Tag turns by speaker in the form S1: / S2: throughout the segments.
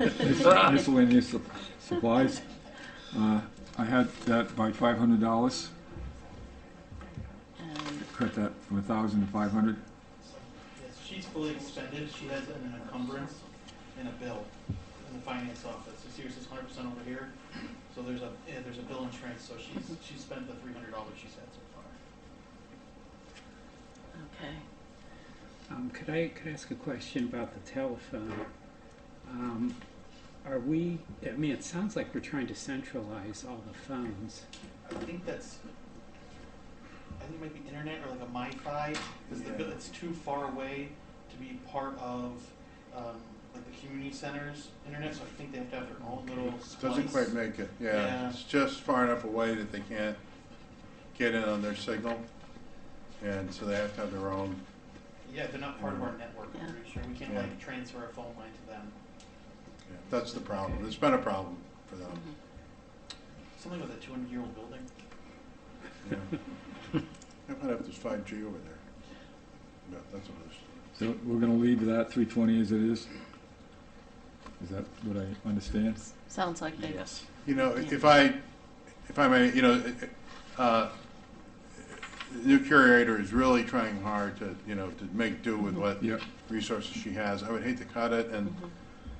S1: mis- miscellaneous sup- supplies. Uh, I had that by five hundred dollars,
S2: Um,
S1: cut that from a thousand to five hundred.
S3: Yes, she's fully expended, she has an encumbrance and a bill in the finance office, so yours is hundred percent over here, so there's a, yeah, there's a bill in trans, so she's, she's spent the three hundred dollars she's had so far.
S2: okay.
S4: Um, could I, could I ask a question about the telephone? Um, are we, I mean, it sounds like we're trying to centralize all the phones.
S3: I think that's, I think it might be internet or like a MiFi, because the, bill- it's too far away to be part of, um, like the community center's internet, so I think they have to have their own little splice.
S5: Doesn't quite make it,
S3: Yeah.
S5: yeah. It's just far enough away that they can't get in on their signal. And so they have to have their own,
S3: Yeah, they're not part of our network, I'm pretty sure, we can't
S5: Mm-hmm. Yeah.
S3: like transfer a phone line to them.
S5: yeah, that's the problem. It's been a problem for them.
S3: Something with a two hundred year old building.
S5: yeah. I might have this five G over there. Yeah, that's what it is.
S1: So we're gonna leave that three twenty as it is? Is that what I understand?
S2: Sounds like they,
S6: Yes.
S5: You know,
S2: Yeah.
S5: if I, if I may, you know, uh, the new curator is really trying hard to, you know, to make do with what
S1: Yeah.
S5: resources she has. I would hate to cut it, and,
S2: Mm-hmm.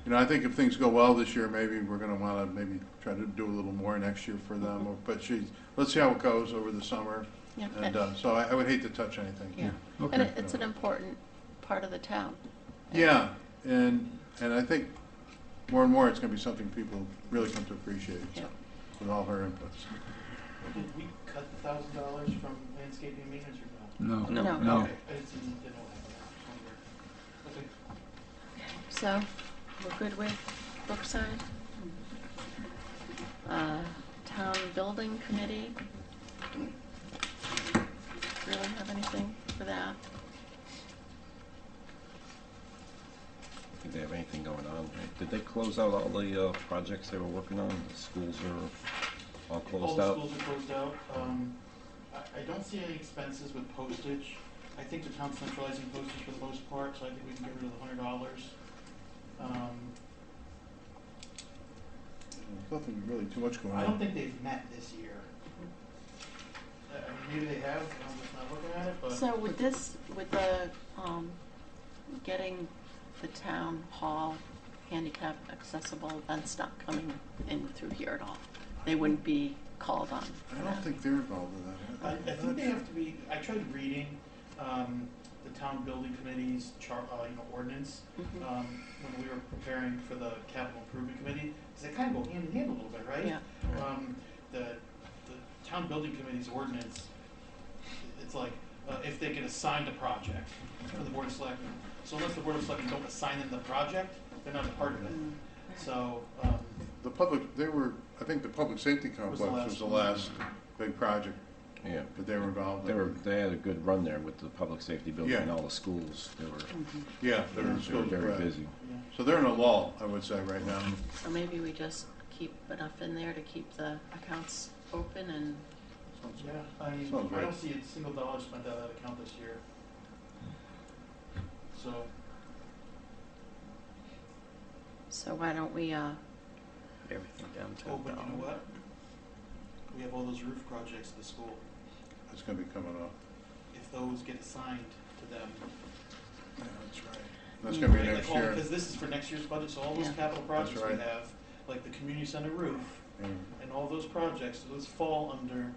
S5: you know, I think if things go well this year, maybe we're gonna wanna maybe try to do a little more next year for them,
S2: Mm-hmm.
S5: or- but she's, let's see how it goes over the summer,
S2: yeah,
S5: and,
S2: that-
S5: uh, so I, I would hate to touch anything.
S2: yeah.
S1: Okay.
S2: And it- it's an important part of the town.
S5: Yeah, and, and I think more and more, it's gonna be something people really come to appreciate, so,
S2: Yeah.
S5: with all her inputs.
S3: Did we cut the thousand dollars from landscaping and maintenance or no?
S1: No.
S6: No.
S2: No.
S1: No.
S3: Okay, I just didn't, didn't know what happened. I was wondering. Okay.
S2: So, we're good with Brookside? Uh, Town Building Committee? Really have anything for that?
S6: Did they have anything going on? Did they close out all the uh, projects they were working on? The schools are all
S3: All
S6: closed
S3: the
S6: out?
S3: schools are closed out. Um, I, I don't see any expenses with postage. I think the town's centralizing postage for the most part, so I think we can get rid of the hundred dollars. Um,
S5: Nothing really too much going on.
S3: I don't think they've met this year. Uh, I mean, maybe they have, I'm just not looking at it, but.
S2: So with this, with the, um, getting the town hall handicap accessible, that's not coming in through here at all. They wouldn't be called on
S5: I
S2: for
S5: don't
S2: that.
S5: think they're involved in that.
S3: I, I
S5: I'm
S3: think
S5: not
S3: they
S5: sure.
S3: have to be, I tried reading, um, the town building committee's char, uh, you know, ordinance,
S2: Mhm.
S3: um, when we were preparing for the capital improvement committee, because they kind of go hand in hand a little bit, right?
S2: Yeah,
S3: Um, the, the town building committee's ordinance, it's like, uh, if they can assign the project for the board of selectmen. So unless the board of selectmen don't assign them the project, they're not a part of it.
S2: Mm.
S3: So, um,
S5: The public, they were, I think the public safety complex was
S3: last
S5: the
S3: one.
S5: last big project
S6: Yeah.
S5: that they were involved
S6: They
S5: in.
S6: were, they had a good run there with the public safety building and
S5: Yeah.
S6: all the schools. They were,
S2: Mhm.
S5: Yeah, they were in
S6: they were
S5: schools,
S6: very
S5: right.
S6: busy.
S3: yeah.
S5: So they're in a lull, I would say, right now.
S2: So maybe we just keep enough in there to keep the accounts open and,
S5: Sounds-
S3: Yeah, I mean,
S5: Sounds
S3: I
S5: right.
S3: don't see a single dollar spent out of that account this year. So,
S2: so why don't we, uh,
S6: Everything down
S3: oh, but you know what? We have all those roof projects at the school.
S5: It's gonna be coming up.
S3: If those get assigned to them.
S5: Yeah, That's right. That's gonna be
S3: right, like
S5: next
S3: all-
S5: year.
S3: Because this is for next year's budget, so all those
S2: Yeah.
S3: capital projects we
S5: right.
S3: have, like the community center roof
S5: Yeah.
S3: and all those projects, those fall under,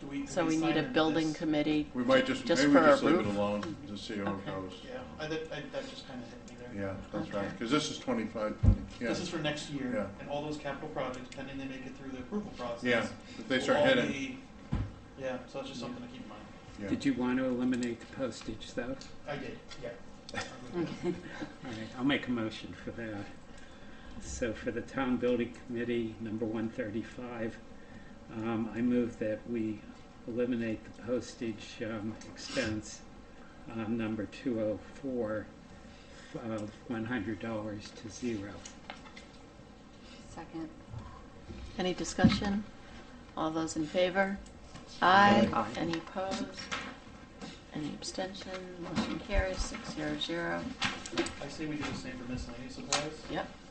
S3: do we, do we
S2: so we
S3: assign
S2: need a
S3: them to
S2: building
S3: this?
S2: committee?
S5: We might just,
S2: Just
S5: maybe we
S2: for a
S5: just leave it
S2: roof?
S5: alone, just see how it
S2: Okay.
S5: goes.
S3: Yeah, I, that, I, that just kinda hit me there.
S5: Yeah, that's right,
S2: Okay.
S5: because this is twenty-five, twenty, yeah,
S3: This is for next year,
S5: Yeah.
S3: and all those capital projects, pending they make it through the approval process.
S5: yeah, if they
S3: will
S5: start
S3: all
S5: hitting,
S3: be- Yeah, so that's just something to keep in mind.
S5: yeah.
S4: Did you want to eliminate the postage though?
S3: I did, yeah.
S4: All right, I'll make a motion for that. So for the town building committee, number one thirty-five, um, I move that we eliminate the postage, um, expense, um, number two oh four of one hundred dollars to zero.
S2: Second. Any discussion? All those in favor? Aye.
S4: Aye.
S2: Any opposed? Any abstention? Motion carries six zero zero.
S3: I say we do the same for miscellaneous supplies.
S2: Yep,